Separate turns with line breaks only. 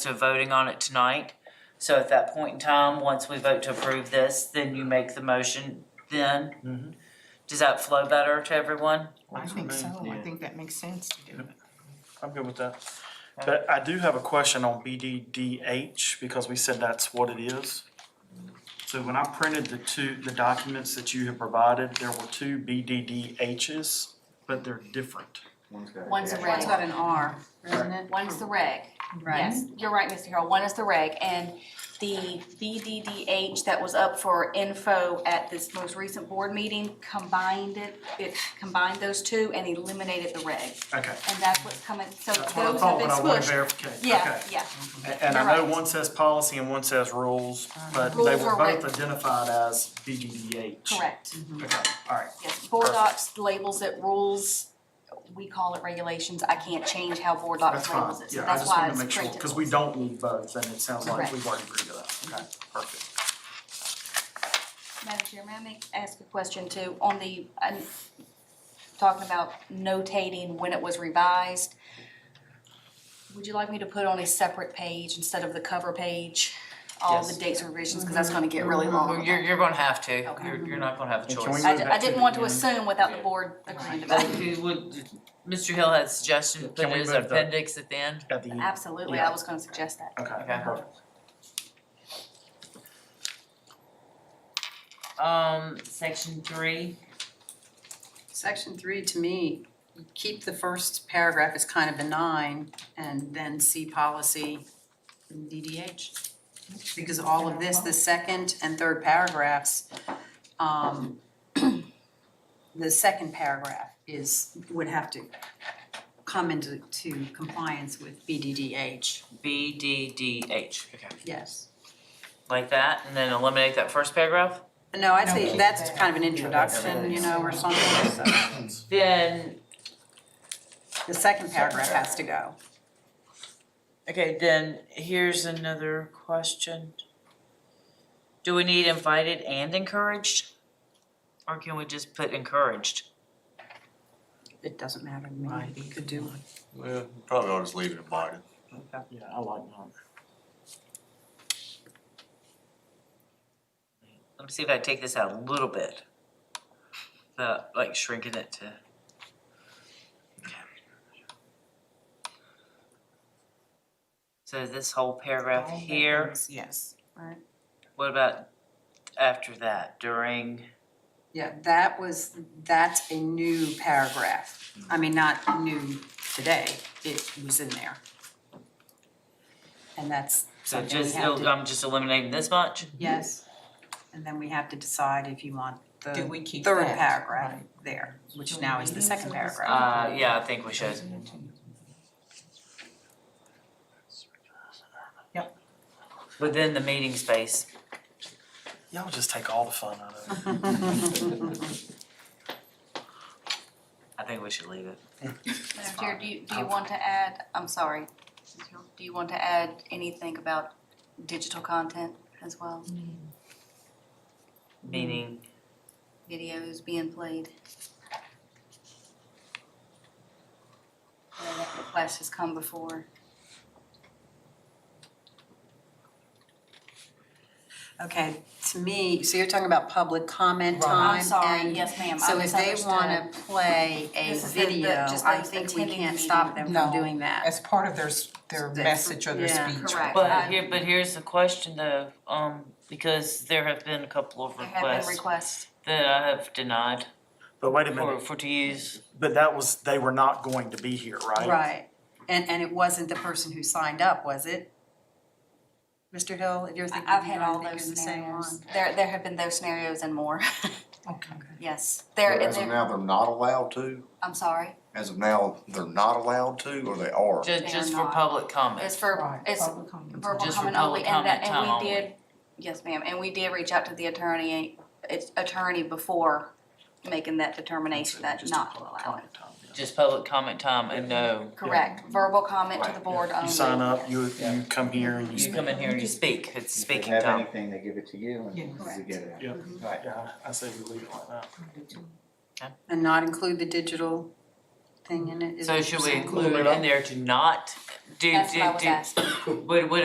to voting on it tonight. So at that point in time, once we vote to approve this, then you make the motion then.
Mhm.
Does that flow better to everyone?
I
Works for
think
me,
so, I
yeah.
think that makes sense to do it.
I'm good with that. But I do have a question on BDDH because we said that's what it is. So when I printed the two, the documents that you have provided, there were two BDDHs, but they're different.
One's a
One's
reg,
got an R, isn't it?
one's the reg,
Right.
yes, you're right, Mr. Harrell, one is the reg, and the BDDH that was up for info at this most recent board meeting combined it, it combined those two and eliminated the reg,
Okay,
and that's what's coming, so
that's what I
those
thought, but
have been
I want to
squished.
verify.
Yeah, yeah,
And I know
You're right.
one says policy and one says rules, but they
Rules
were
are
both
right.
identified as BDDH.
correct,
Okay, all right.
yes, board docs labels it rules, we call it regulations, I can't change how board
That's
docs
fine,
labels it, so
yeah, I
that's
just
why
wanted
it's
to make
printed.
sure, because we don't need both, and it sounds like
Correct.
we've already agreed to that, okay, perfect.
Madam Chair, may I make, ask a question too, on the, i talking about notating when it was revised. Would you like me to put on a separate page instead of the cover page, all the
Yes.
dates and revisions, because that's gonna get really long.
Mm-hmm. You're, you're gonna have to.
Okay.
You're, you're not gonna have a
And can we
choice.
I,
move
di-
that
I
to
didn't
the
want to
beginning?
assume without the board agreeing to
Like,
that.
you would- Mr. Hill had suggestions,
Can
put it
we
as
move the-
appendix at the end.
At the, okay,
Absolutely, I was gonna suggest that.
Okay.
perfect.
Um, section three,
Section three, to me, keep the first paragraph as kind of benign and then see policy in DDH. Because all of this, the second and third paragraphs, um, the second paragraph is, would have to come into, to compliance with BDDH,
B, D, D, H. Okay.
yes.
Like that, and then eliminate that first paragraph?
No, I'd say
No.
that's kind of an introduction, you know, or something, so
Then,
the second paragraph has to go.
okay, then here's another question. Do we need invited and encouraged? Or can we just put encouraged?
It doesn't matter to me, you could do
Well, probably ought to just leave it in mind.
Yeah, I like that.
Let me see if I take this out a little bit. The, like shrinking it to. So this whole paragraph here,
Yes.
what about after that, during?
Yeah, that was, that's a new paragraph. I mean, not new today, it was in there. And that's
So
something we
just,
have to,
I'm just eliminating this much?
yes. And then we have to decide if you want the
Do we keep
third
that?
paragraph there, which now is the second paragraph.
Uh, yeah, I think we should.
Yep.
Within the meeting space.
Y'all just take all the fun out of it.
I think we should leave it.
Madam Chair, do you, do you want to add, I'm sorry, do you want to add anything about digital content as well?
Meaning,
Videos being played? I know That request has come before.
Okay, to me, so you're talking about public comment time
I'm sorry,
and-
yes, ma'am, I
So if they
misunderstood.
wanna play a
This is the- the-
video,
just
I
the
think we
attending
can't
the
stop
meeting.
them from
No.
doing that.
As part of their, s- their
That's-
message or their
yeah,
speech.
correct.
but
uh,
I-
here, but here's the question though, um, because there have been a couple of
There have been
requests
requests.
that I have denied
But wait a
for,
minute,
for to use.
but that was, they were not going to be here, right?
Right, and, and it wasn't the person who signed up, was it? Mr. Hill, if you're
I-
thinking,
I've had all
I think
those
you're the same one.
scenarios. There, there have been those scenarios and more,
Okay.
yes. There,
As of
there,
now, they're not allowed to,
I'm sorry,
as of now, they're not allowed to, or they are.
Just,
They are
just for
not.
public comment.
it's for,
Right,
it's
public comment.
verbal
Just
comment
for
only,
public
and that,
comment
and we
time
did, yes, ma'am, and we did reach out to the attorney, its attorney before making that determination that
Just a
not to
public
allow it.
comment time, yeah.
Just public comment time and no,
Correct, verbal comment to the
Right,
board only.
You sign up, you,
Yeah.
you come here and you
you
speak.
come in here and you speak, it's
If
speaking
they have
time.
anything, they give it to you and
Yeah.
you get it.
Yeah.
Right.
Yeah, I say we leave it like that.
And not include the digital
thing in it. is
So
what
should
you're
we
saying.
include in there to not do,
That's what I
do,
was
do,
asking.
would, would